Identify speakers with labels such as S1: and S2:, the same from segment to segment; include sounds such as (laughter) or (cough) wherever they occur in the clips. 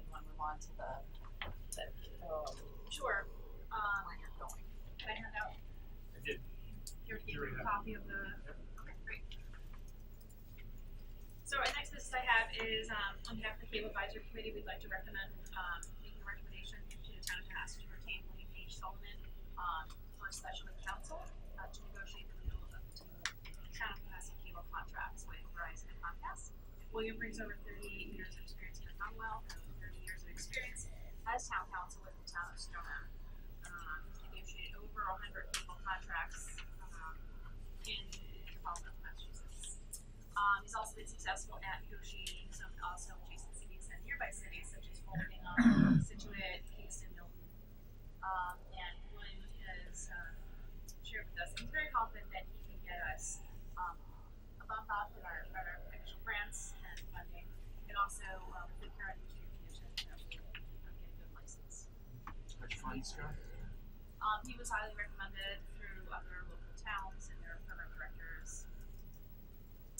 S1: on to the, the, um,
S2: Sure. Um,
S1: where you're going.
S2: can I hand out
S3: I did.
S2: your
S3: You already
S2: a
S3: have
S2: copy of the? Okay, great. So our next business I have is, um, on behalf of the cable advisory committee, we'd like to recommend, um, making a recommendation to the town of Cohasset to retain William H. Solomon, um, for a special ed council, uh, to negotiate the renewal of the town of Cohasset cable contracts with Verizon and Comcast. William brings over thirty-eight years of experience in the Commonwealth and thirty years of experience as town council with the town of Stoneham um, negotiated over a hundred legal contracts, um, in the Commonwealth of Massachusetts. Um, he's also been successful at negotiating some also adjacent cities and nearby cities such as Holding on Situate, Kingston, Milton. Um, and William has, um, shared with us, he's very confident that he can get us, um, a bump up in our, in our official grants and funding, and also, um, the current industry conditions that we are getting good license.
S3: Which funds go?
S2: Um, he was highly recommended through other local towns and their program directors.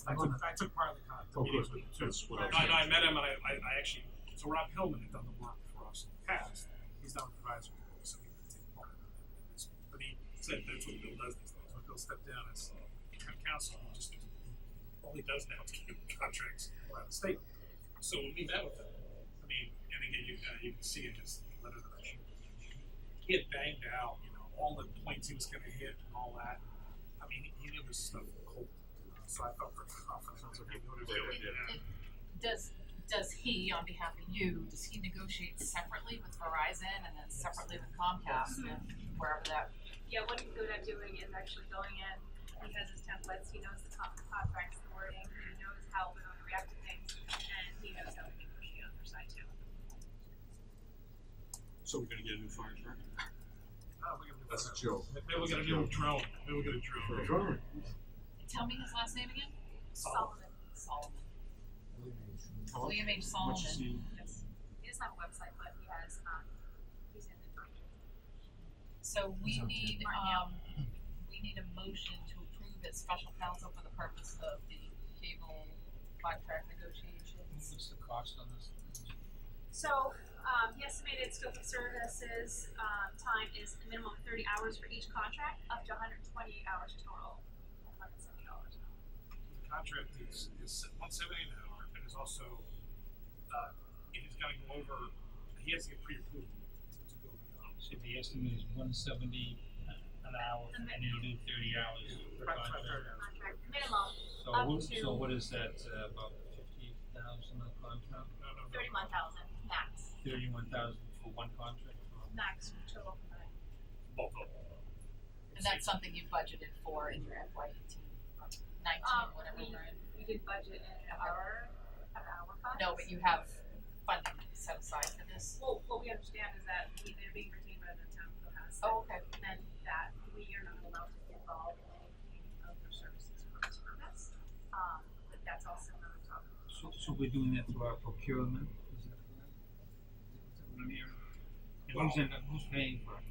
S3: I took, I took part in the con, the
S4: Oh,
S3: meetings
S4: good.
S3: with him too.
S4: That's what
S3: And
S4: I was
S3: I, and I
S4: saying.
S3: met him and I, I, I actually, so Rob Hillman had done the work for us in the past. He's now an advisory board, so he would take part in this. But he said that's what Bill does these days. When Bill stepped down as town council, he just, all he does now is give (laughs) contracts around the state. So when we met with him, I mean, and again, you, uh, you can see in his letter that I shared. He had banged out, you know, all the points he was gonna hit and all that. I mean, he knew his stuff cold. So I felt pretty confident. that he knew what he was doing. Yeah.
S1: Does, does he, on behalf of you, does he negotiate separately with Verizon and then separately with Comcast and wherever that?
S2: Yeah, what he's good at doing is actually going in, he has his templates, he knows the top contracts, the wording, he knows how we're going to react to things, and he knows how to negotiate on their side too.
S4: So we're gonna get a new fire truck?
S3: Oh, we can do
S4: That's
S3: that.
S4: a joke.
S3: Maybe we'll get a new drone. Maybe we'll get a drone.
S1: Tell me his last name again?
S2: Solomon.
S1: Solomon.
S4: How
S1: William H.
S4: much is
S1: Solomon.
S4: he?
S2: Yes. He doesn't have a website, but he has, um, he's in the director.
S1: So we need,
S2: Martin, yeah.
S1: um, we need a motion to approve as special counsel for the purpose of the cable contract negotiations.
S5: What's the cost on this?
S2: So, um, he estimated scope of services, um, time is a minimum of thirty hours for each contract, up to hundred and twenty hours total, hundred and seventy dollars an hour.
S3: The contract is, is one seventy an hour and is also, uh, it has gotta go over, he has to get pre-approved to go beyond.
S5: So the estimate is one seventy an hour, and you do thirty hours per
S3: Right, right,
S5: contract.
S3: right.
S2: Contract minimum,
S5: So
S2: Up
S5: what,
S2: to-
S5: so what is that, uh, about fifty thousand a contract?
S3: No, no, no.
S2: thirty-one thousand, max,
S5: Thirty-one thousand for one contract?
S2: max total combined.
S3: Both of them.
S1: And that's something you budgeted for in your FY eighteen, nineteen,
S2: Um,
S1: whatever
S2: we-
S1: we're in.
S2: We did budget in our, an hour fund.
S1: No, but you have funding set aside for this.
S2: Well, what we understand is that we, they're being retained by the town of Cohasset.
S1: Oh, okay.
S2: And that we are not allowed to get involved in any of their services for this purpose. Um, but that's also another topic.
S5: So, so we're doing that through our procurement, is that correct? Is that what I'm hearing? And who's in, who's paying for it?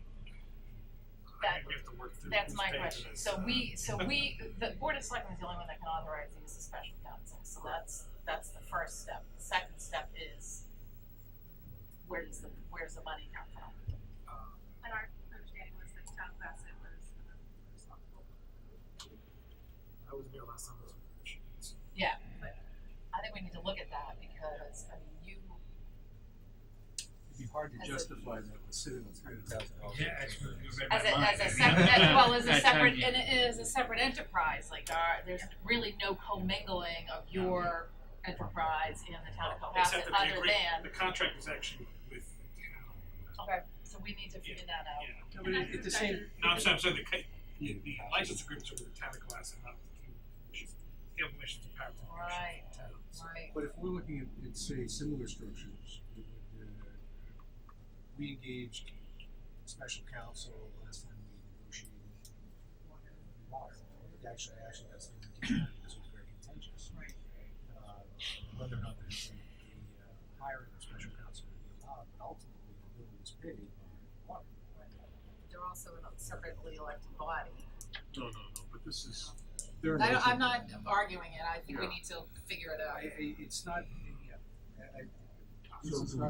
S3: I think we have to work through
S1: That's
S3: who's
S1: my
S3: paying for
S1: question.
S3: this,
S1: So
S3: uh,
S1: we,
S3: (laughs)
S1: so we, the board of selectmen is the only one that can authorize these as special counsel, so that's, that's the first step. The second step is where does the, where's the money come from?
S3: uh,
S2: And our understanding was that town Bassett was um, responsible.
S3: I was there last time I was with the machines.
S1: I think we need to look at that because, I mean, you,
S4: It'd be hard
S1: As
S4: to
S1: a-
S4: justify that we're sitting on three hundred thousand dollars.
S1: as a, as a separate,
S3: (laughs)
S1: well, as a separate, and it is a separate enterprise, like, our, there's really no commingling of your enterprise in the town of Cohasset,
S3: Except that the
S1: other
S3: agree,
S1: than,
S3: the contract is actually with the town.
S1: okay, so we need to figure that out.
S3: Yeah.
S2: And that's
S5: It's the same,
S3: No, I'm sorry, I'm sorry, the, ca- the, the license agreements are with the town of Cohasset, not with the Cable Commission. Cable Commission's a power
S1: Right.
S3: commission. Towns.
S1: Right,
S4: But if we're looking at, at say, similar structures, it would, uh, we engaged special counsel last time we negotiated water. Actually, actually, that's the one that was very contentious.
S1: right.
S4: uh, whether or not there's a, a uh, hiring of special counsel would be allowed, but ultimately the bill was paid by water.
S1: They're also a separately elected body.
S4: No, no, no, but this is.
S1: I don't, I'm not arguing it, I think we
S4: Yeah.
S1: need to figure it
S4: I,
S1: out.
S4: I, it's not, yeah, I, I.
S3: So-
S4: it's not-